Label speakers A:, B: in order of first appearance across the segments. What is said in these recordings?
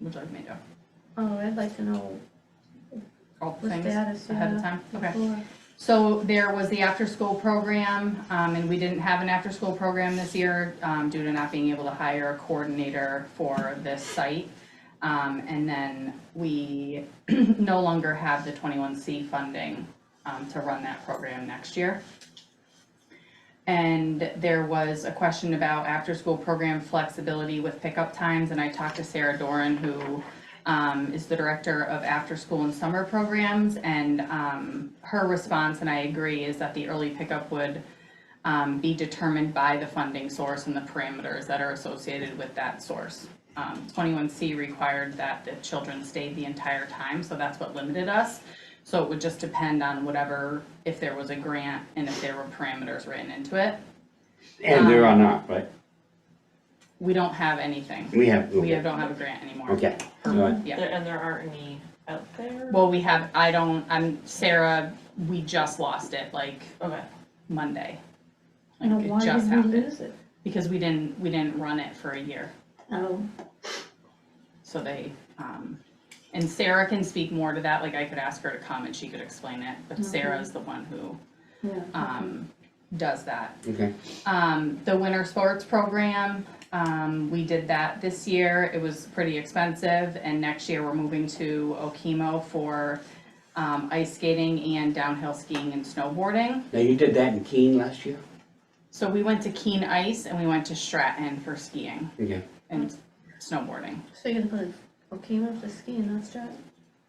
A: which I've made up,
B: Oh, I'd like to know
A: all the
B: the
A: things
B: status,
A: ahead of
B: yeah,
A: time, okay.
B: before.
A: So there was the after-school program, um, and we didn't have an after-school program this year, um, due to not being able to hire a coordinator for this site. Um, and then we no longer have the twenty-one C funding, um, to run that program next year. And there was a question about after-school program flexibility with pickup times, and I talked to Sarah Doran, who um, is the director of after-school and summer programs, and um, her response, and I agree, is that the early pickup would um, be determined by the funding source and the parameters that are associated with that source. Um, Twenty-one C required that the children stayed the entire time, so that's what limited us. So it would just depend on whatever, if there was a grant and if there were parameters written into it.
C: And there are not, right?
A: We don't have anything.
C: We have.
A: We have- Uh-huh. don't have a grant anymore.
C: Okay, alright,
A: Yeah.
D: There- And there aren't any out there?
A: Well, we have, I don't, I'm, Sarah, we just lost it like
D: Okay,
A: Monday.
B: Now,
A: Like it
B: why
A: just
B: did we
A: happened,
B: lose it?
A: because we didn't, we didn't run it for a year,
B: Oh,
A: so they, um, and Sarah can speak more to that, like I could ask her to come and she could explain it, but Sarah's the one who,
B: yeah.
A: um, does that.
C: okay.
A: Um, the winter sports program, um, we did that this year, it was pretty expensive, and next year we're moving to Okemo for, um, ice skating and downhill skiing and snowboarding.
C: Now, you did that in Keene last year?
A: So we went to Keen Ice and we went to Stratton for skiing
C: Okay,
A: and snowboarding.
B: So you're gonna put Okemo for skiing, that's right?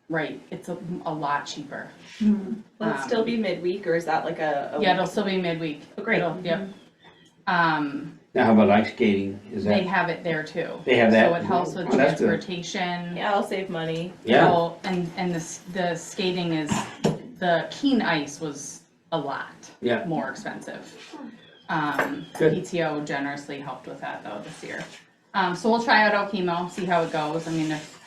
A: Right, it's a, a lot cheaper.
D: will it still be midweek or is that like a? a
A: Yeah, it'll
D: week?
A: still be midweek.
D: Oh, great.
A: It'll- Yep. Um,
C: now how about ice skating, is
A: they
C: that,
A: have it there too.
C: They have that?
A: So it helps with
C: Oh, that's good.
A: transportation.
D: Yeah, I'll save money.
C: yeah,
A: Well, And, and the, s- the skating is, the Keen Ice was a lot
C: yeah,
A: more expensive.
D: Hmm.
A: Um,
C: Good.
A: PTO generously helped with that though this year. Um, so we'll try out Okemo, see how it goes. I mean, if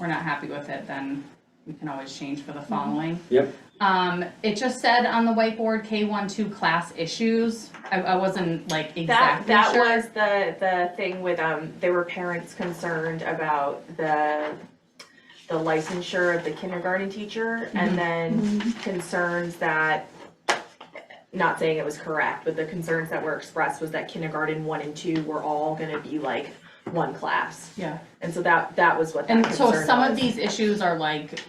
A: we're not happy with it, then we can always change for the
D: Hmm.
A: following.
C: yep,
A: Um, it just said on the whiteboard, K one, two class issues. I, I wasn't like
D: That,
A: exactly
D: that
A: sure.
D: was the, the thing with, um, there were parents concerned about the, the licensure of the kindergarten teacher
A: Mm-hmm.
D: and then concerns that, not saying it was correct, but the concerns that were expressed was that kindergarten one and two were all gonna be like one class.
A: Yeah,
D: And so that, that was what that
A: and
D: concern
A: so some of
D: was.
A: these issues are like,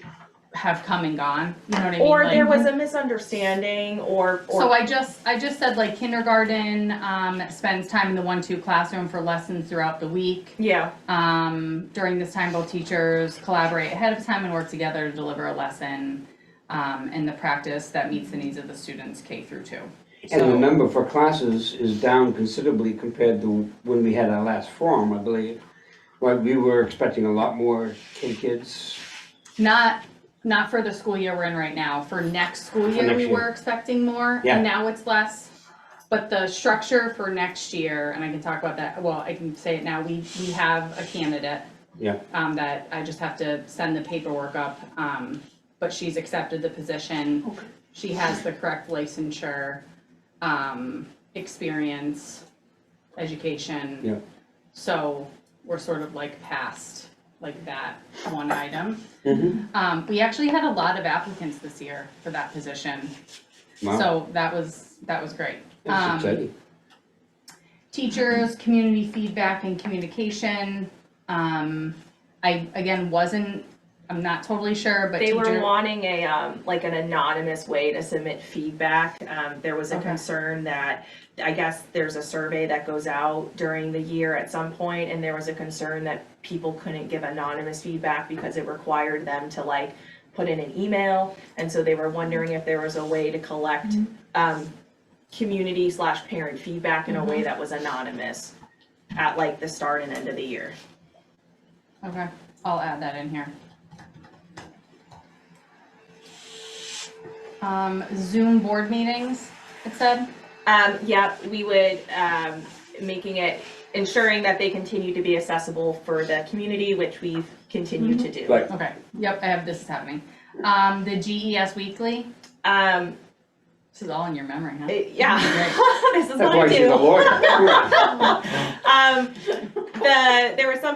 A: have come and gone, you know what I mean?
D: Or
A: Like-
D: there was a misunderstanding or, or.
A: So I just, I just said like kindergarten, um, spends time in the one, two classroom for lessons throughout the week.
D: Yeah,
A: Um, during this time, both teachers collaborate ahead of time and work together to deliver a lesson, um, in the practice that meets the needs of the students K through two.
C: and
A: So-
C: remember, for classes is down considerably compared to when we had our last forum, I believe. Right, we were expecting a lot more K kids,
A: Not, not for the school year we're in right now, for next school year,
C: next
A: we
C: year.
A: were expecting more,
C: Yeah.
A: and now it's less. But the structure for next year, and I can talk about that, well, I can say it now, we, we have a candidate.
C: Yeah.
A: Um, that I just have to send the paperwork up, um, but she's accepted the position.
B: Okay.
A: She has the correct licensure, um, experience, education.
C: Yeah.
A: So we're sort of like past like that one item.
C: mm-hmm,
A: Um, we actually had a lot of applicants this year for that position,
C: wow,
A: so that was, that was great.
C: that's
A: Um,
C: exciting,
A: Teachers, community feedback and communication, um, I, again, wasn't, I'm not totally sure, but
D: they were
A: teacher-
D: wanting a, um, like an anonymous way to submit feedback. Um, there was a
A: Okay.
D: concern that, I guess there's a survey that goes out during the year at some point, and there was a concern that people couldn't give anonymous feedback because it required them to like put in an email, and so they were wondering if there was a way to collect,
A: Mm-hmm.
D: um, community slash parent feedback in a
A: Mm-hmm.
D: way that was anonymous at like the start and end of the year.
A: Okay, I'll add that in here. Um, Zoom board meetings, it said,
D: Um, yeah, we would, um, making it, ensuring that they continue to be accessible for the community, which we've continued to do.
C: right,
A: okay, yep, I have, this is happening. Um, the GES weekly,
D: Um,
A: this is all in your memory, huh?
D: it- yeah, this is
C: that's
D: what I
C: why she's a
D: do.
C: lawyer.
D: Um, the, there were some